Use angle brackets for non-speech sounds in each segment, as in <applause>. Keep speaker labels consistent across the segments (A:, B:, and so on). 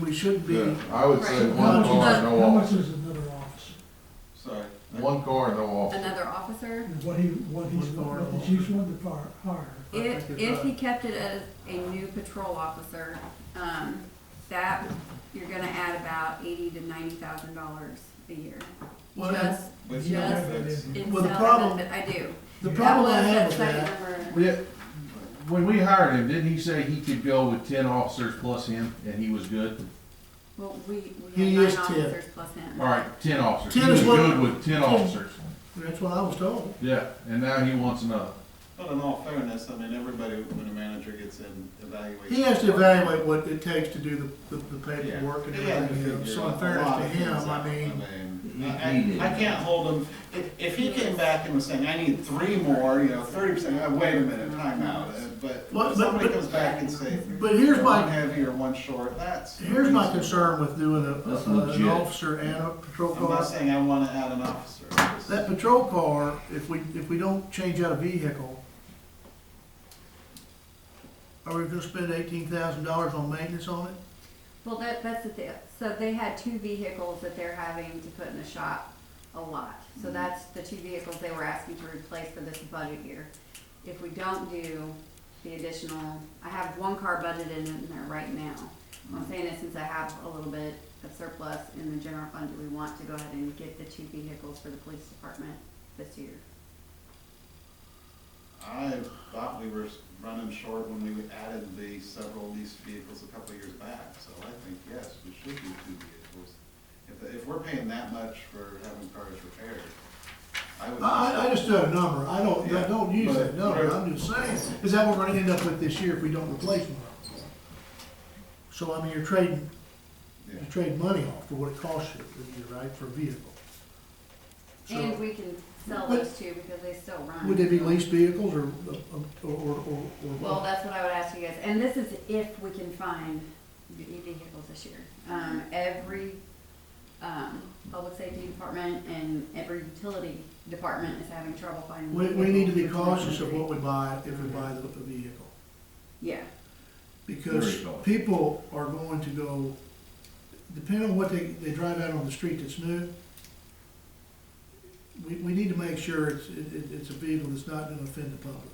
A: we should be.
B: Yeah, I would say
C: Right.
B: one
C: How
B: car,
C: much-
B: no
D: How much
B: officer.
D: is another officer?
E: Sorry.
B: One car, no officer.
C: Another officer?
D: And What he, what he's,
A: One car,
D: what the
A: officer.
D: chief's wanting to fire, hire?
C: If, if he kept it as a new patrol officer, um, that, you're gonna add about eighty to ninety thousand dollars a year.
A: Well,
C: Just
E: Let's
A: Yeah.
E: not fix-
D: That
C: in
A: Well, the
C: salary,
A: problem-
C: but I do.
A: The
D: That
C: That
A: problem
C: was
A: I have
C: that
A: with
C: second
A: that,
C: number.
F: Yeah, when we hired him, didn't he say he could go with ten officers plus him, and he was good?
C: Well, we, we
A: He
C: have
A: is
C: nine
A: 10.
C: officers plus him.
F: All right, ten officers.
A: 10
F: He
A: is
F: was
A: what-
F: good with ten
A: 10.
F: officers.
A: that's what I was told.
F: Yeah, and now he wants another.
E: But in all fairness, I mean, everybody, when a manager gets in, evaluates.
A: He has to evaluate what it takes to do the, the- the paperwork and
E: He had to
A: everything, you know,
E: figure
A: so in
E: a
A: fairness
E: lot
A: to
E: of things
A: him, I
E: out.
A: mean,
E: mean, I, I- I can't hold him, if, if he came back and was saying, I need three more, you know, thirty percent, "Oh, wait a minute, timeout, uh, but
A: Well, but-
E: if somebody
A: but-
E: comes back and say,
A: but here's
E: one
A: my,
E: heavy or one short, that's.
A: here's my
E: reasonable.
A: concern with doing a,
F: That's
A: a- an
F: legit.
A: officer and a patrol
E: I'm not
A: car.
E: saying I wanna add an officer. It's-
A: That patrol car, if we, if we don't change out a vehicle, are we gonna spend eighteen thousand dollars on maintenance on it?
C: Well, that, that's the thing, so they had two vehicles that they're having to put in the shop a lot. So
A: Mm-hmm.
C: that's the two vehicles they were asking to replace for this budget year. If we don't do the additional, I have one car budgeted in there right now. I'm
A: Mm-hmm.
C: saying that since I have a little bit of surplus in the general fund, do we want to go ahead and get the two vehicles for the police department this year?
E: I thought we were running short when we added the several leased vehicles a couple of years back, so I think, yes, we should do two vehicles. If, if we're paying that much for having cars repaired, I would.
A: I, I just do a number, I don't, I don't use that
E: Yeah, but-
A: number, I'm just saying, is that what we're gonna end up with this year if we don't replace one? So, I mean, you're trading,
E: Yeah.
A: you trade money off for what it costs you for the year, right, for a vehicle?
C: And
A: So,
C: we can sell
A: But-
C: those two because they still run.
A: would they be leased vehicles or, uh, or, or, or?
C: Well, that's what I would ask you guys, and this is if we can find the vehicles this year.
A: Mm-hmm.
C: Um, every, um, public safety department and every utility department is having trouble finding.
A: We, we need to be
C: vehicles.
A: cautious of what we buy if we buy the, the vehicle,
C: Yeah,
A: because
F: Very cautious.
A: people are going to go, depending on what they, they drive out on the street that's new, we, we need to make sure it's, it, it- it's a vehicle that's not gonna offend the public.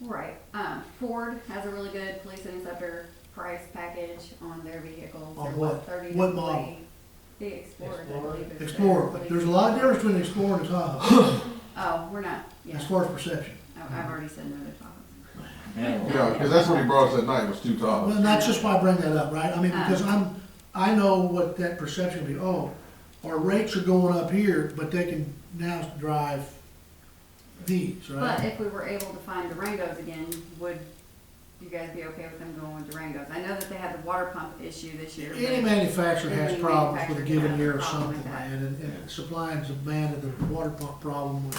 C: right, um, Ford has a really good police interceptor price package on their vehicles.
A: On
C: They're
A: what?
C: about 30
A: What
C: to
A: model?
C: 40. The Explorer, I
G: Explorer?
C: believe. is the-
A: Explorer, there's a lot of difference between Explorer and Tahoe,
C: Oh, we're not, yeah,
A: as far as perception.
C: I- I've already said no to Tahoe.
B: Yeah, because that's what he brought us that night, was two
A: Well,
B: tops.
A: and that's just why I bring that up, right? I mean,
C: Uh.
A: because I'm, I know what that perception would be, oh, our rates are going up here, but they can now drive these,
C: But
A: right?
C: if we were able to find Durangos again, would you guys be okay with them going with Durangos? I know that they had the water pump issue this year.
A: Any
C: but-
A: manufacturer has
C: Any
A: problems with a
C: manufacturer
A: given
C: has a
A: year or
C: problem
A: something,
C: with that.
A: man, and, and supplying and demand of the water pump problem was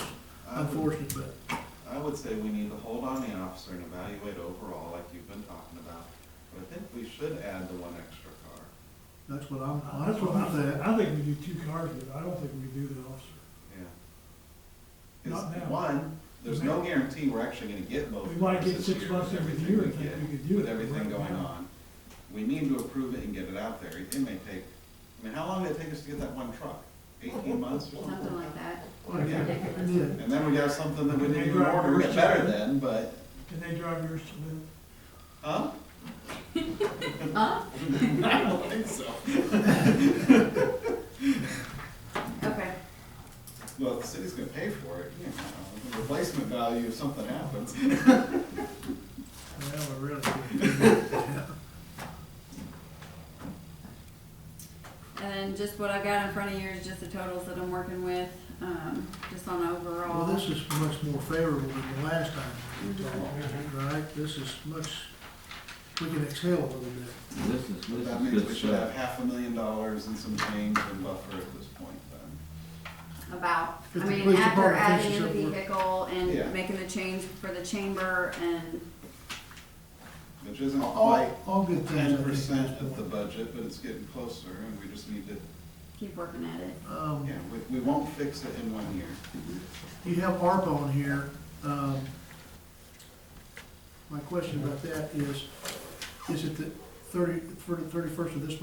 E: I would-
A: unfortunate, but.
E: I would say we need to hold on the officer and evaluate overall, like you've been talking about, but I think we should add the one extra car.
A: That's what I'm,
D: I
A: that's what I'm saying.
D: I think we do two cars, but I don't think we do the officer.
E: Yeah.
D: Not
E: Because
D: now.
E: one, there's no guarantee we're actually gonna get both.
D: We might get
E: this
D: six
E: year
D: months
E: with
D: every
E: everything
D: year,
E: we
D: I think
E: get,
D: we could do it.
E: With everything
D: Right
E: going
D: now.
E: on. We need to approve it and get it out there. It may take, I mean, how long did it take us to get that one truck?
H: <laughs>
E: Eighteen months or
C: Something
E: something?
C: like that.
E: Yeah.
A: Yeah.
E: And then we got something that we
D: They
E: didn't even
D: drive
E: order,
D: first
E: it's better
D: year.
E: then, but,
D: Can they drive yours to live?
E: huh?
C: Huh?
E: I don't think so.
C: Okay,
E: Well, the city's gonna pay for it, you know, the replacement value if something happens.
A: Well, we're really.
C: and then just what I've got in front of you is just the totals that I'm working with, um, just on overall.
A: Well, this is much more favorable than the last time we talked, right? This is much, we can exhale a little bit.
H: This is,
E: But
H: this
E: That
H: is
E: means
H: good
E: we should have
H: stuff.
E: half a million dollars and some change in buffer at this point then.
C: about, I
A: If the
C: mean,
A: police
C: after
A: department
C: adding in
A: thinks
C: the
A: it's at work.
C: vehicle
E: Yeah.
C: and making the change for the chamber and,
E: Which isn't
D: Oh,
E: quite
A: All, all good things. I
E: ten
A: think, Um, at
E: percent
A: this
E: of the
A: point.
E: budget, but it's getting closer, and we just need to,
C: keep working at it.
A: Um,
E: yeah, we, we won't fix it in one year.
A: You have ARPA on here. Um, My question about that is, is it the thirty, for the thirty-first of this